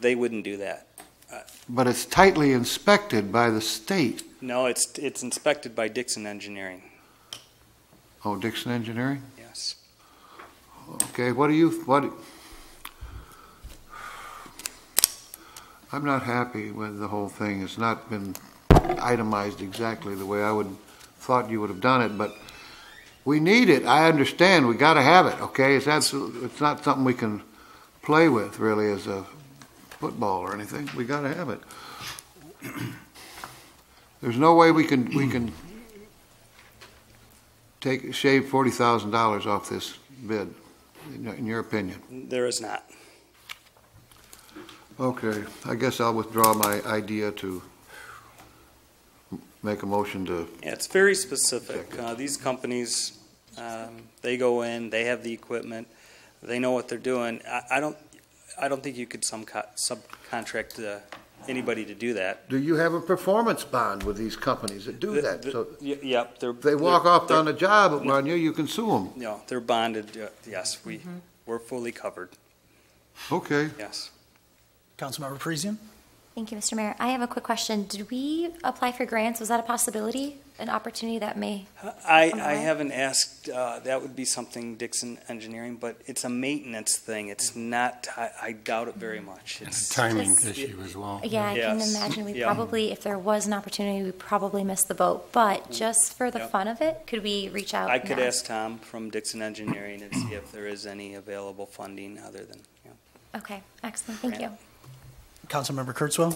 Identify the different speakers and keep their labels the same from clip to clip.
Speaker 1: they wouldn't do that.
Speaker 2: But it's tightly inspected by the state.
Speaker 1: No, it's, it's inspected by Dixon Engineering,
Speaker 2: Oh, Dixon Engineering?
Speaker 1: yes.
Speaker 2: Okay, what do you, what? I'm not happy with the whole thing. It's not been itemized exactly the way I would, thought you would have done it, but we need it. I understand. We gotta have it, okay? It's absolutely, it's not something we can play with really as a football or anything. We gotta have it. There's no way we can, we can take, shave forty thousand dollars off this bid, in in your opinion?
Speaker 1: There is not.
Speaker 2: Okay, I guess I'll withdraw my idea to m- make a motion to,
Speaker 1: Yeah, it's very specific. Uh, These companies, um, they go in, they have the equipment, they know what they're doing. I- I don't, I don't think you could some co- subcontract uh, anybody to do that.
Speaker 2: do you have a performance bond with these companies that do
Speaker 1: The-
Speaker 2: that?
Speaker 1: the-
Speaker 2: So
Speaker 1: y- Yep, they're.
Speaker 2: if they walk
Speaker 1: they're-
Speaker 2: off on
Speaker 1: they're-
Speaker 2: a job on you, you can sue them.
Speaker 1: No, they're bonded, uh, yes, we, we're fully covered,
Speaker 2: Okay.
Speaker 1: yes.
Speaker 3: Councilmember Parisian?
Speaker 4: Thank you, Mr. Mayor. I have a quick question. Did we apply for grants? Was that a possibility, an opportunity that may?
Speaker 1: I,
Speaker 4: On the
Speaker 1: I
Speaker 4: way?
Speaker 1: haven't asked, uh, that would be something Dixon Engineering, but it's a maintenance thing, it's not, I I doubt it very much. It's-
Speaker 5: timing
Speaker 4: Just-
Speaker 5: issue as well.
Speaker 4: Yeah, I can
Speaker 1: Yes.
Speaker 4: imagine we
Speaker 1: Yeah.
Speaker 4: probably, if there was an opportunity, we probably missed the boat. But just for the
Speaker 1: Yep.
Speaker 4: fun of it, could we reach out?
Speaker 1: Mm. I could
Speaker 4: now?
Speaker 1: ask Tom from Dixon Engineering and see if there is any available funding other than, yeah.
Speaker 4: Okay, excellent. Thank you.
Speaker 1: Grant.
Speaker 3: Councilmember Kurtzwell?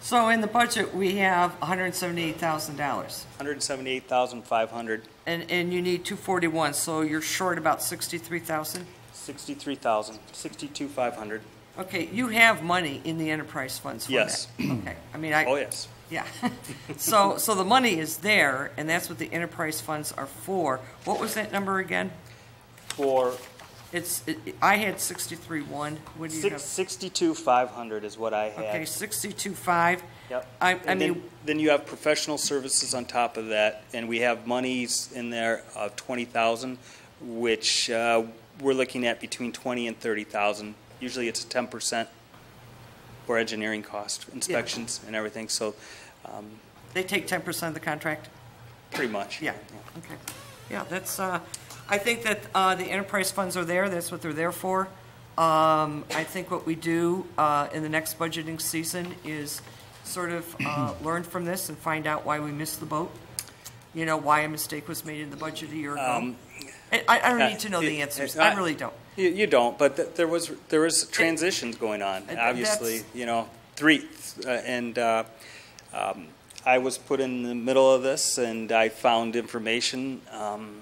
Speaker 6: So in the budget, we have $178,000,
Speaker 1: 178,500,
Speaker 6: and, and you need 241, so you're short about 63,000.
Speaker 1: 63,000, 62,500,
Speaker 6: Okay, you have money in the enterprise funds for
Speaker 1: Yes.
Speaker 6: that. Okay, I mean,
Speaker 1: oh,
Speaker 6: I,
Speaker 1: yes.
Speaker 6: yeah. So, so the money is there, and that's what the enterprise funds are for. What was that number again?
Speaker 1: For
Speaker 6: It's, it- I had 63.1, what do you
Speaker 1: six-
Speaker 6: have?
Speaker 1: 62,500 is what I
Speaker 6: Okay,
Speaker 1: had.
Speaker 6: 62.5.
Speaker 1: Yep.
Speaker 6: I, I
Speaker 1: And then-
Speaker 6: mean,
Speaker 1: Then you have professional services on top of that, and we have monies in there of 20,000, which uh, we're looking at between 20 and 30,000. Usually it's a 10% for engineering cost, inspections and everything, so um,
Speaker 6: they take 10% of the contract?
Speaker 1: pretty much.
Speaker 6: Yeah, okay. Yeah, that's, uh, I think that uh, the enterprise funds are there, that's what they're there for. Um, I think what we do uh, in the next budgeting season is sort of uh, learn from this and find out why we missed the boat, you know, why a mistake was made in the budget a year ago. I I don't need to know the answers, I really don't.
Speaker 1: You, you don't, but th- there was there was transitions going on.
Speaker 6: Uh,
Speaker 1: Obviously,
Speaker 6: that's-
Speaker 1: you know, three, uh, and uh, um, I was put in the middle of this, and I found information, um,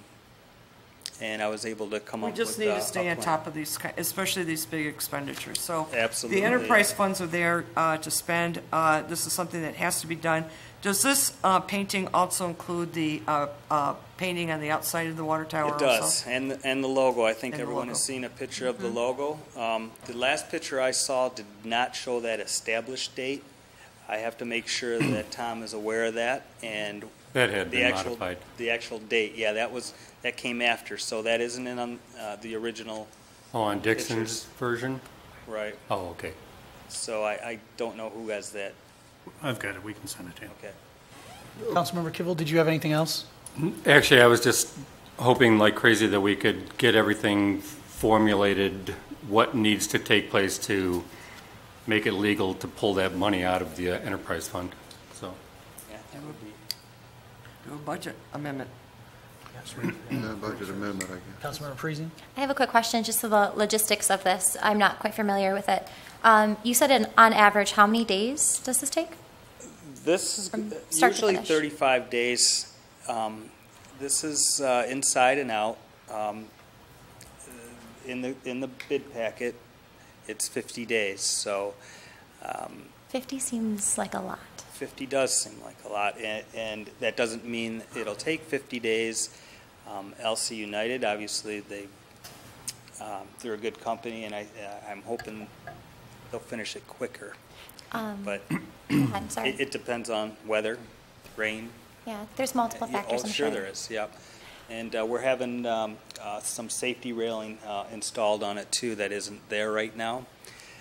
Speaker 1: and I was able to come
Speaker 6: We
Speaker 1: up
Speaker 6: just need
Speaker 1: with uh,
Speaker 6: to stay
Speaker 1: a
Speaker 6: on
Speaker 1: plan.
Speaker 6: top of these, ki- especially these big expenditures, so.
Speaker 1: Absolutely.
Speaker 6: The enterprise funds are there uh, to spend, Uh, this is something that has to be done. Does this uh, painting also include the uh, uh, painting on the outside of the water tower
Speaker 1: It
Speaker 6: also?
Speaker 1: does, and the- and the logo. I think
Speaker 6: And the
Speaker 1: everyone has
Speaker 6: logo. Mm-hmm.
Speaker 1: seen a picture of the logo. Um, the last picture I saw did not show that established date. I have to make sure that Tom is aware of that, and
Speaker 5: That had
Speaker 1: The
Speaker 5: been
Speaker 1: actual,
Speaker 5: modified.
Speaker 1: the actual date, yeah, that was, that came after, so that isn't in on, uh, the original,
Speaker 5: Oh, on Dixon's
Speaker 1: Pictures.
Speaker 5: version?
Speaker 1: right?
Speaker 5: Oh, okay.
Speaker 1: So I, I don't know who has that,
Speaker 7: I've got it, we can send it to you.
Speaker 1: okay.
Speaker 3: Councilmember Kivel, did you have anything else?
Speaker 5: Mm-hmm. Actually, I was just hoping like crazy that we could get everything formulated, what needs to take place to make it legal to pull that money out of the uh, enterprise fund, so.
Speaker 1: Yeah, that would be-
Speaker 6: Do a budget amendment.
Speaker 2: Yeah, Budget amendment, I guess.
Speaker 3: Councilmember Parisian?
Speaker 4: I have a quick question just to the logistics of this. I'm not quite familiar with it. Um, you said an, on average, how many days does this take?
Speaker 1: This is
Speaker 4: From start to
Speaker 1: usually
Speaker 4: finish.
Speaker 1: thirty-five days. Um, this is, uh, inside and out. Um, in the, in the bid packet, it's fifty days, so, um,
Speaker 4: 50 seems like a lot.
Speaker 1: 50 does seem like a lot, and, and that doesn't mean it'll take 50 days. Um, LC United, obviously, they, um, they're a good company, and I, uh, I'm hoping they'll finish it quicker.
Speaker 4: Um,
Speaker 1: But
Speaker 4: I'm sorry.
Speaker 1: it, it depends on weather, rain.
Speaker 4: yeah, there's multiple
Speaker 1: Yeah,
Speaker 4: factors.
Speaker 1: Oh,
Speaker 4: I'm
Speaker 1: sure there is, yep. And uh, we're having um, uh, some safety railing uh, installed on it, too, that isn't there right now.